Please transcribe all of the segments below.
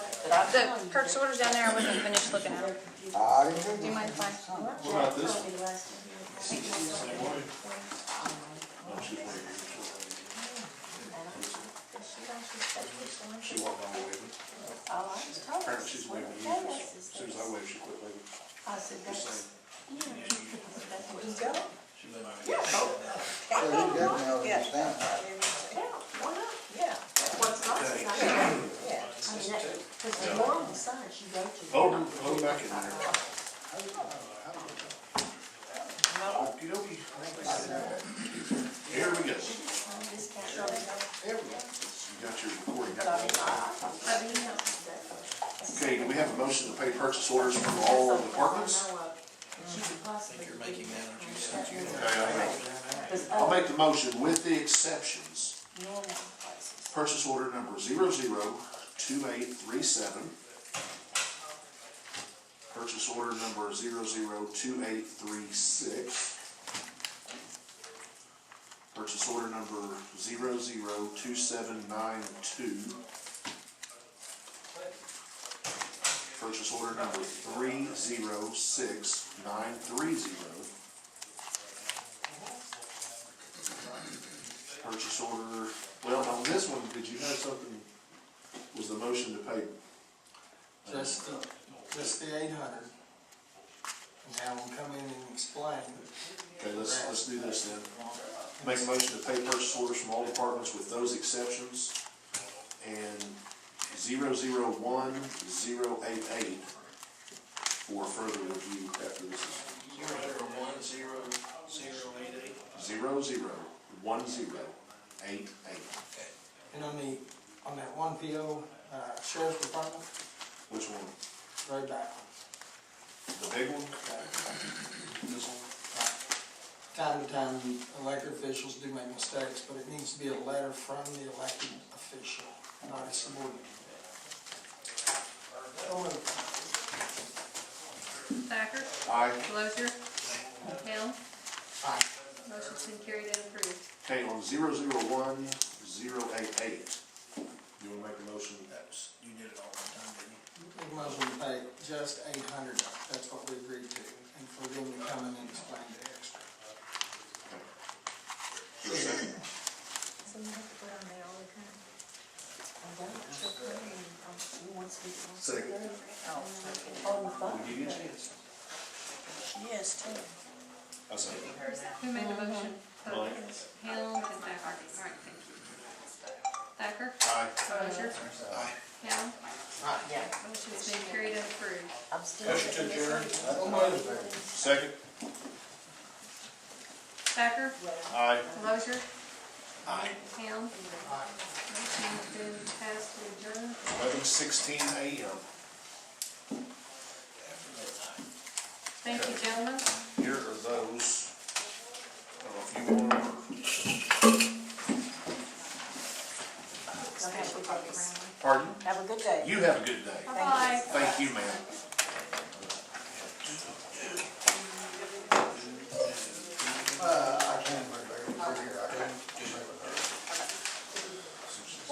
the purchase order's down there, I wasn't finished looking at them. I didn't think Do you this- mind if I? What about this one? She She walked on waving. Oh, I was told. Apparently she's waving to you. As soon as I waved, she quit waving. I said, that's, Just that's where you go. So he definitely ought to be stamped. Yeah, why not? Yeah. What's nice is I, yeah, I mean, that, because the more on the signs you go to. Oh, oh, back in there. Okey-dokey. Here we go. You This can't really go. got your recording. So, I mean, back. I, I, I mean, you know, that- Okay, do we have a motion to pay purchase orders from all that's departments? something I know of. She could possibly. You're making that, aren't you, since you Okay, I'll make- Because I'll other make the motion with the exceptions. uh, normal places. Purchase order number zero zero two eight three seven. Purchase order number zero zero two eight three six. Purchase order number zero zero two seven nine two. Purchase order number three zero six nine three zero. purchase order, well, on this one, did you have something, was the motion to pay? Just the, just the eight hundred. And have them come in and explain. Okay, let's, let's do this then. Make a motion to pay purchase orders from all departments with those exceptions. And zero zero one, zero eight eight for further review after this is Zero zero one zero zero eight eight. zero zero one zero eight eight. And on the, on that one PO, uh, sheriff's department, Which one? right back. The big one? This one? Time to time, elected officials do make mistakes, but it needs to be a letter from the elected official, not a subordinate. Don't move. Thacker, Aye. Lozier, Hale, Aye. motion's been carried and approved. Okay, on zero zero one, zero eight eight. You wanna make a motion? Yes. You did it all one time, didn't you? Make a motion to pay just eight hundred, that's what we agreed to, and for them to come in and explain the extra. So you have to put on there all the time. I don't, um, you want to speak. Second. On the phone. When you get a chance. Yes, too. I say. Who made the motion? Hale Mike. and Thacker, all right, thank you. Thacker, Aye. Lozier, Aye. Hale, Yeah, motion's been carried and approved. I'm still. Motion to adjourn. Second? Thacker, Aye. Lozier, Aye. Hale. Motion's been passed to adjourn. Eleven sixteen AM, Thank you, gentlemen. here are those. I don't know if you want them or. Pardon? Have a good day. You have a good day. Bye-bye. Thank you, ma'am. Uh, I can't bring it back over here, I can't.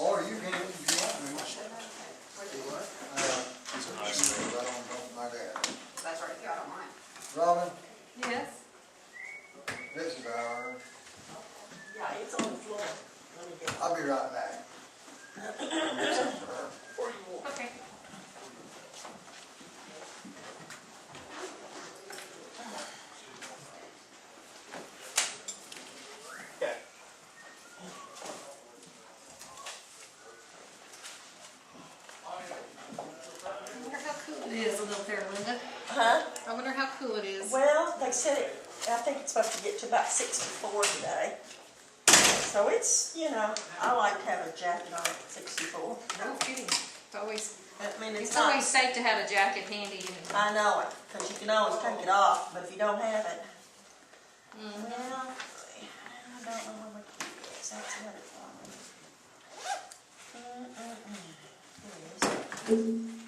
Or you can, if you want me. Do what? Uh, I don't, don't mind that. That's right, yeah, I don't mind. Robin, Yes? this is our, Yeah, it's on the floor. Let me get I'll be right back. Get some for her. Okay. I wonder how cool it is a little there, Linda. Huh? I wonder how cool it is. Well, they said it, I think it's supposed to get to about sixty-four today. So it's, you know, I like to have a jacket on at sixty-four. No kidding. It's always, I mean, it's it's not, always safe to have a jacket handy, you know. I know it, because you can always take it off, but if you don't have it. Well, Mm. I don't know where my key is, that's Mm, another problem. Mm-mm-mm. Here it is.